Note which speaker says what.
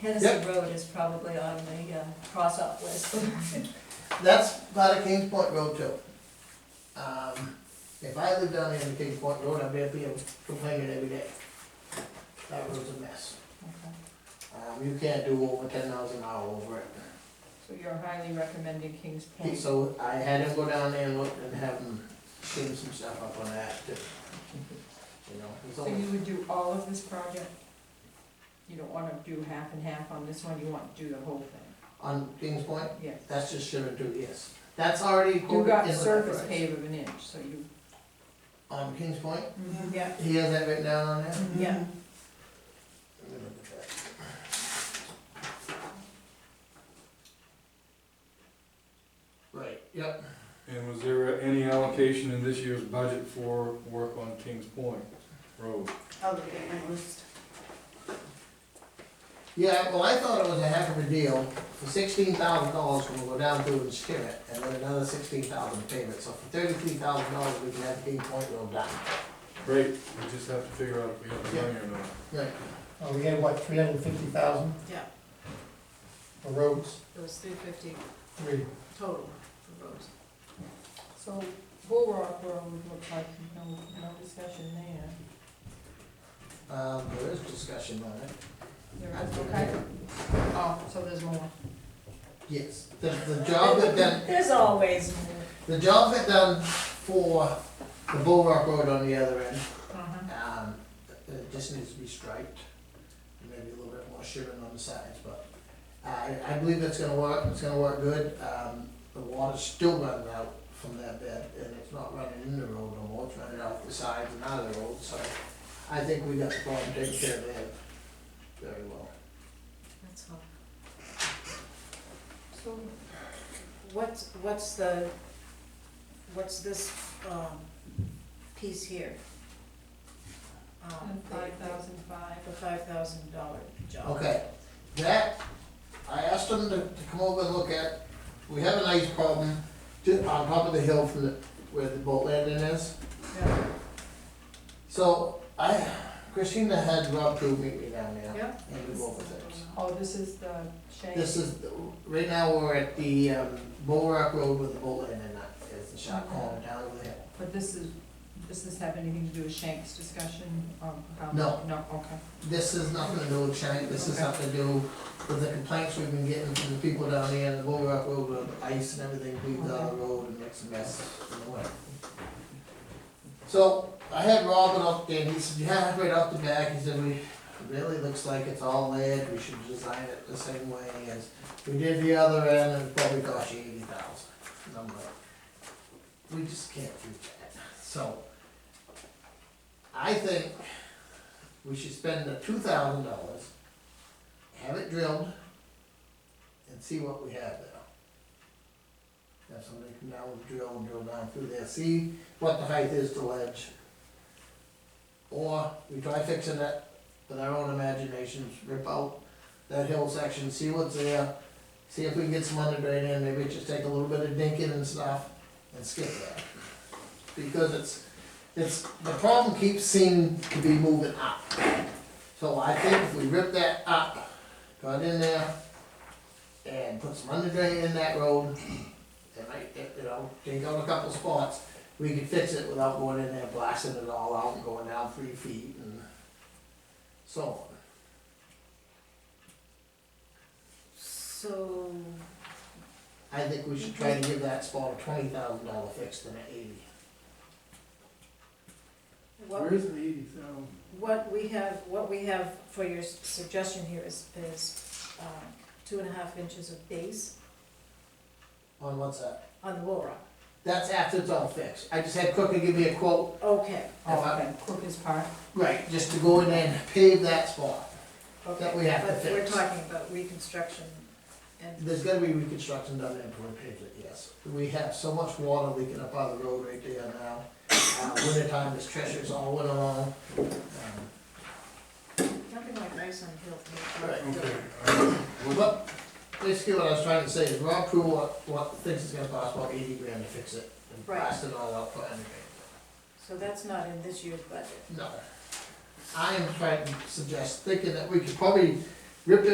Speaker 1: Hennessy Road is probably on the uh, cross-off list.
Speaker 2: That's part of Kings Point Road too. Um, if I lived down there in Kings Point Road, I'd be up here complaining every day. That road's a mess.
Speaker 1: Okay.
Speaker 2: Um, you can't do over ten miles an hour over it.
Speaker 1: So you're highly recommending Kings
Speaker 2: He-
Speaker 1: Point.
Speaker 2: So I had him go down there and look and have him clean some stuff up on that too. You know, it's
Speaker 1: So
Speaker 2: only,
Speaker 1: you would do all of this project? You don't wanna do half and half on this one, you want to do the whole thing?
Speaker 2: on Kings Point,
Speaker 1: Yes.
Speaker 2: that's just shouldn't do, yes. That's already
Speaker 1: You
Speaker 2: quoted
Speaker 1: got
Speaker 2: in the
Speaker 1: surface
Speaker 2: price.
Speaker 1: pave of an inch, so you.
Speaker 2: On Kings Point,
Speaker 1: Yeah.
Speaker 2: he has that written down on there?
Speaker 1: Yeah.
Speaker 3: Mm-hmm.
Speaker 2: Let me look at that. Right, yep,
Speaker 4: And was there any allocation in this year's budget for work on Kings Point Road?
Speaker 3: I'll look at my list.
Speaker 2: yeah, well, I thought it was a heck of a deal, for sixteen thousand dollars, we'll go down through and skim it, and then another sixteen thousand payment, so for thirty-three thousand dollars, we can have King Point Road done.
Speaker 4: Great, we just have to figure out if we have the money or not.
Speaker 2: Right.
Speaker 5: Uh, we had what, three hundred and fifty thousand
Speaker 3: Yeah,
Speaker 5: for roads,
Speaker 3: it was three fifty
Speaker 5: three.
Speaker 3: total for roads.
Speaker 1: So Bull Rock Road would look like, no, no discussion there.
Speaker 2: Um, there is discussion on it,
Speaker 1: There is, okay? Oh, so there's more.
Speaker 2: yes, the, the job that done,
Speaker 1: There's always more.
Speaker 2: the job that done for the Bull Rock Road on the other end,
Speaker 1: Uh-huh.
Speaker 2: Um, it just needs to be striped, and maybe a little bit more shimmin' on the sides, but I, I believe that's gonna work, it's gonna work good. Um, the water's still running out from that bed, and it's not running in the road no more, it's running out the sides and out of the road, so I think we got the problem taken care of there very well.
Speaker 3: That's all. So, what's, what's the, what's this, um, piece here? Um,
Speaker 1: And
Speaker 3: the-
Speaker 1: five thousand five.
Speaker 3: The five thousand dollar job.
Speaker 2: Okay, that, I asked them to, to come over and look at, we have an ice problem ju- on top of the hill from the, where the boat landing is.
Speaker 1: Yeah.
Speaker 2: So I, Christina had Rob Crew meet me down there
Speaker 1: Yeah.
Speaker 2: and do both of those.
Speaker 1: Oh, this is the shade.
Speaker 2: This is, the- right now, we're at the, um, Bull Rock Road with the boat landing, that is the shot calling down over there.
Speaker 1: But this is, does this have anything to do with Shank's discussion um, about?
Speaker 2: No.
Speaker 1: No, okay.
Speaker 2: This is nothing to do with Shank, this is something to do with the complaints we've been getting from the people down there, and the Bull Rock Road, with ice and everything, leaves on the road and makes a mess in the winter. So, I had Robin up there, and he said, yeah, right off the back, he said, we, it really looks like it's all lead, we should design it the same way as we did the other end, and it probably cost you eighty thousand. And I'm like, we just can't do that, so. I think we should spend the two thousand dollars, have it drilled, and see what we have there. Have somebody come down with a drill and drill down through there, see what the height is to ledge. Or we try fixing it with our own imaginations, rip out that hill section, see what's there, see if we can get some under drain in, maybe just take a little bit of dinking and stuff, and skip that. Because it's, it's, the problem keeps seeming to be moving up. So I think if we rip that up, got in there, and put some under drain in that road, and might, you know, take out a couple spots, we could fix it without going in there blasting it all out and going down three feet and so on.
Speaker 3: So,
Speaker 2: I think we should try to give that spot a twenty thousand dollar fix than an eighty.
Speaker 3: what,
Speaker 5: is the eighty thousand?
Speaker 3: what we have, what we have for your s- suggestion here is, is, um, two and a half inches of base
Speaker 2: On what's that?
Speaker 3: on the wall rock.
Speaker 2: That's after it's all fixed. I just had Cooker give me a quote,
Speaker 3: Okay,
Speaker 1: Oh, okay, Crooked Park.
Speaker 2: right, just to go in there and pave that spot.
Speaker 3: okay.
Speaker 2: That we have to
Speaker 3: But we're
Speaker 2: fix.
Speaker 3: talking about reconstruction and
Speaker 2: There's gotta be reconstruction done there before we pave it, yes. We have so much water leaking up out of the road right there now. Uh, winter time, there's treasures all winter long. Um,
Speaker 3: Nothing like ice on hill.
Speaker 4: Okay, uh, well,
Speaker 2: But basically what I was trying to say is Rob Crew, what, what thinks it's gonna cost about eighty grand to fix it and
Speaker 3: Right.
Speaker 2: blast it all out for anything.
Speaker 3: So that's not in this year's budget.
Speaker 2: No. I am trying to suggest, thinking that we could probably rip it